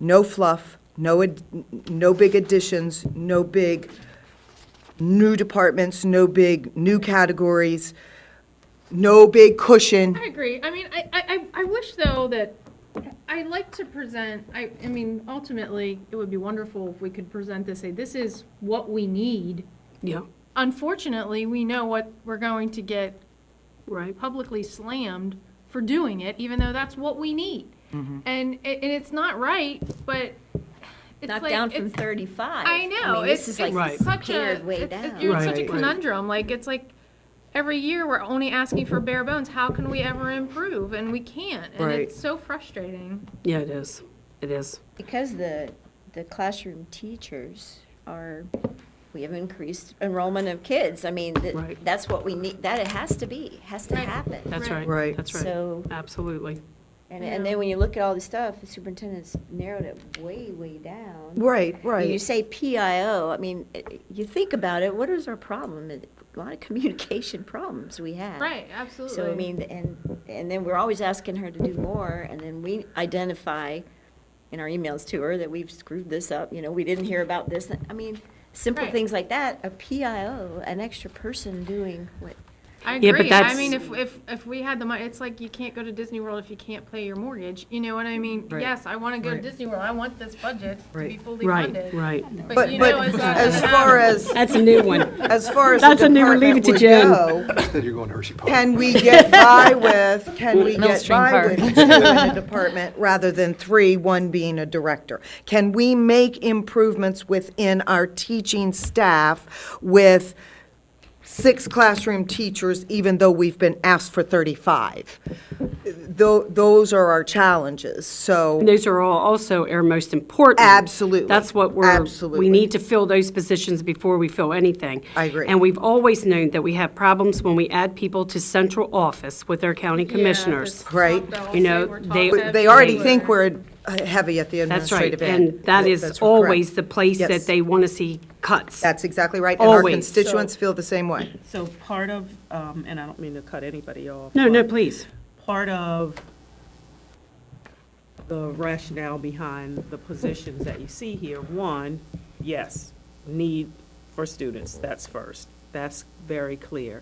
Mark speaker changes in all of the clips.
Speaker 1: no fluff, no, ad- no big additions, no big new departments, no big new categories, no big cushion.
Speaker 2: I agree. I mean, I, I, I I wish though that, I like to present, I, I mean, ultimately, it would be wonderful if we could present this, say, this is what we need.
Speaker 3: Yeah,
Speaker 2: Unfortunately, we know what we're going to get
Speaker 3: right.
Speaker 2: publicly slammed for doing it, even though that's what we need. And, it- and it's not right, but it's
Speaker 4: Knocked
Speaker 2: like,
Speaker 4: down from
Speaker 2: it's-
Speaker 4: 35.
Speaker 2: I know.
Speaker 4: mean,
Speaker 2: it's,
Speaker 4: this is like
Speaker 3: Right.
Speaker 2: such a
Speaker 4: pared way
Speaker 2: it's- it's-
Speaker 4: down.
Speaker 2: you're in such a
Speaker 3: Right.
Speaker 2: conundrum. Like it's like every year we're only asking for bare bones. How can we ever improve? And we can't. And
Speaker 1: Right.
Speaker 2: it's so frustrating.
Speaker 3: Yeah, it is. It is.
Speaker 4: Because the, the classroom teachers are, we have increased enrollment of kids. I mean, th-
Speaker 3: Right.
Speaker 4: that's what we need, that it has to be, has to
Speaker 2: Right.
Speaker 4: happen.
Speaker 3: That's
Speaker 2: Right.
Speaker 3: right.
Speaker 1: Right.
Speaker 3: That's right.
Speaker 4: So,
Speaker 3: Absolutely.
Speaker 4: and, and then when you look at all the stuff, the superintendent's narrowed it way, way down.
Speaker 1: Right,
Speaker 4: When you
Speaker 1: right.
Speaker 4: say PIO, I mean, it- you think about it, what is our problem? A lot of communication problems we have.
Speaker 2: Right. Absolutely.
Speaker 4: So, I mean, and, and then we're always asking her to do more, and then we identify in our emails to her that we've screwed this up, you know, we didn't hear about this. I mean, simple
Speaker 2: Right.
Speaker 4: things like that, a PIO, an extra person doing what,
Speaker 2: I agree.
Speaker 3: Yeah, but
Speaker 2: I
Speaker 3: that's-
Speaker 2: mean, if, if if we had the money, it's like you can't go to Disney World if you can't pay your mortgage. You know what I mean?
Speaker 1: Right.
Speaker 2: Yes, I want to go
Speaker 1: Right.
Speaker 2: to Disney World. I want this budget to be
Speaker 1: Right.
Speaker 2: fully
Speaker 3: Right,
Speaker 2: funded.
Speaker 3: right.
Speaker 2: But,
Speaker 1: But,
Speaker 2: you
Speaker 1: but
Speaker 2: know, it's not
Speaker 1: as
Speaker 2: gonna
Speaker 1: far
Speaker 2: happen.
Speaker 1: as,
Speaker 3: That's a new one.
Speaker 1: as far as the
Speaker 3: That's a new relief
Speaker 1: department
Speaker 3: to
Speaker 1: would
Speaker 3: Jen.
Speaker 1: go,
Speaker 5: That you're going to Hershey Park.
Speaker 1: can we get by with, can we get
Speaker 6: Millstream
Speaker 1: by
Speaker 6: Park.
Speaker 1: with two in a department rather than three, one being a director? Can we make improvements within our teaching staff with six classroom teachers, even though we've been asked for 35? Tho- Those are our challenges, so.
Speaker 3: And Those are all also our most important.
Speaker 1: Absolutely.
Speaker 3: That's what we're,
Speaker 1: Absolutely.
Speaker 3: we need to fill those positions before we fill anything.
Speaker 1: I agree.
Speaker 3: And we've always known that we have problems when we add people to central office with our county
Speaker 2: Yeah,
Speaker 3: commissioners.
Speaker 2: that's
Speaker 1: Right.
Speaker 2: what they'll
Speaker 3: You know,
Speaker 2: say. We're
Speaker 3: they-
Speaker 2: talking
Speaker 1: They already
Speaker 2: about-
Speaker 1: think we're uh, heavy at the
Speaker 3: That's right.
Speaker 1: administrative end.
Speaker 3: And that is
Speaker 1: That's correct.
Speaker 3: always the place
Speaker 1: Yes.
Speaker 3: that they want to see cuts.
Speaker 1: That's exactly right, and our
Speaker 3: Always.
Speaker 1: constituents feel the same way.
Speaker 6: So part of, um, and I don't mean to cut anybody off.
Speaker 3: No, no,
Speaker 6: but
Speaker 3: please.
Speaker 6: Part of the rationale behind the positions that you see here, one, yes, need for students, that's first. That's very clear.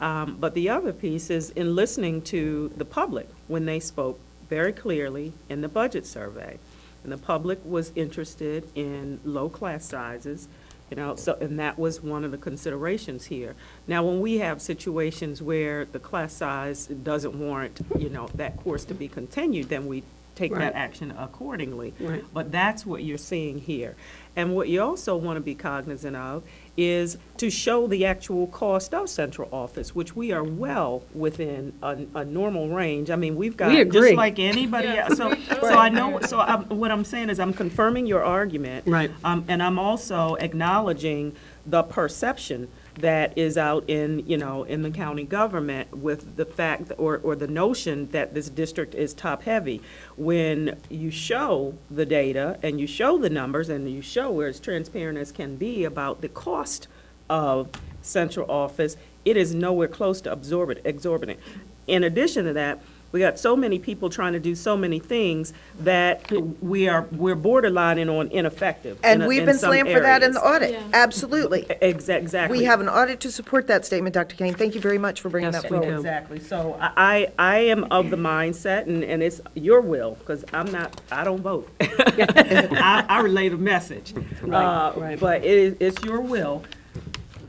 Speaker 6: Um, But the other piece is in listening to the public when they spoke very clearly in the budget survey. And the public was interested in low class sizes, you know, so, and that was one of the considerations here. Now, when we have situations where the class size doesn't warrant, you know, that course to be continued, then we take
Speaker 3: Right.
Speaker 6: that action accordingly.
Speaker 3: Right.
Speaker 6: But that's what you're seeing here. And what you also want to be cognizant of is to show the actual cost of central office, which we are well within a, a normal range. I mean, we've got,
Speaker 3: agree.
Speaker 6: just like anybody
Speaker 2: Yeah.
Speaker 6: else. So, so I know, so I'm, what I'm saying is I'm confirming your argument.
Speaker 3: Right.
Speaker 6: Um, and I'm also acknowledging the perception that is out in, you know, in the county government with the fact or, or the notion that this district is top-heavy. When you show the data and you show the numbers and you show where it's transparent as can be about the cost of central office, it is nowhere close to absorbent, exorbitant. In addition to that, we got so many people trying to do so many things that we are, we're borderlining on ineffective. in
Speaker 1: And
Speaker 6: a-
Speaker 1: we've
Speaker 6: in
Speaker 1: been
Speaker 6: some
Speaker 1: slammed for that in the
Speaker 6: areas.
Speaker 1: audit, absolutely.
Speaker 6: Ex- Exactly.
Speaker 1: We have an audit to support that statement, Dr. Kane. Thank you very much for bringing
Speaker 3: Yes,
Speaker 1: that
Speaker 3: we
Speaker 1: forward.
Speaker 3: do.
Speaker 6: Exactly. So I, I I am of the mindset, and, and it's your will, because I'm not, I don't vote. I, I relay the message. Uh,
Speaker 3: right.
Speaker 6: But it is, it's your will.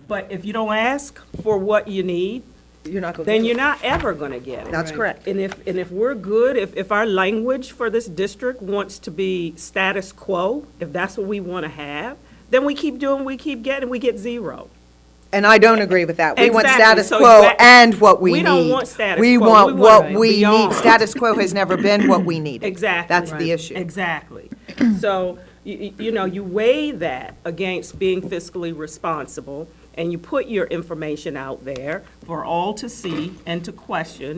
Speaker 6: But if you don't ask for what you need,
Speaker 1: You're not going to.
Speaker 6: then you're not ever going to get it.
Speaker 1: That's correct.
Speaker 6: And if, and if we're good, if, if our language for this district wants to be status quo, if that's what we want to have, then we keep doing, we keep getting, we get zero.
Speaker 1: And I don't agree with that. We want
Speaker 6: Exactly.
Speaker 1: status
Speaker 6: So
Speaker 1: quo
Speaker 6: exact-
Speaker 1: and what we need.
Speaker 6: We don't want status
Speaker 1: We
Speaker 6: quo. We
Speaker 1: want
Speaker 6: want
Speaker 1: what we need.
Speaker 6: beyond.
Speaker 1: Status quo has never been what we needed.
Speaker 6: Exactly.
Speaker 1: That's the issue.
Speaker 6: Exactly. So, you, you know, you weigh that against being fiscally responsible, and you put your information out there for all to see and to question,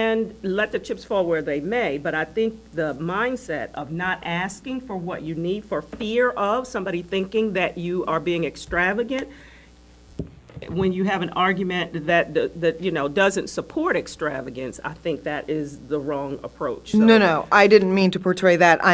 Speaker 6: and let the chips fall where they may. But I think the mindset of not asking for what you need for fear of somebody thinking that you are being extravagant, when you have an argument that, that, you know, doesn't support extravagance, I think that is the wrong approach. So-
Speaker 1: No, no, I didn't mean to portray that.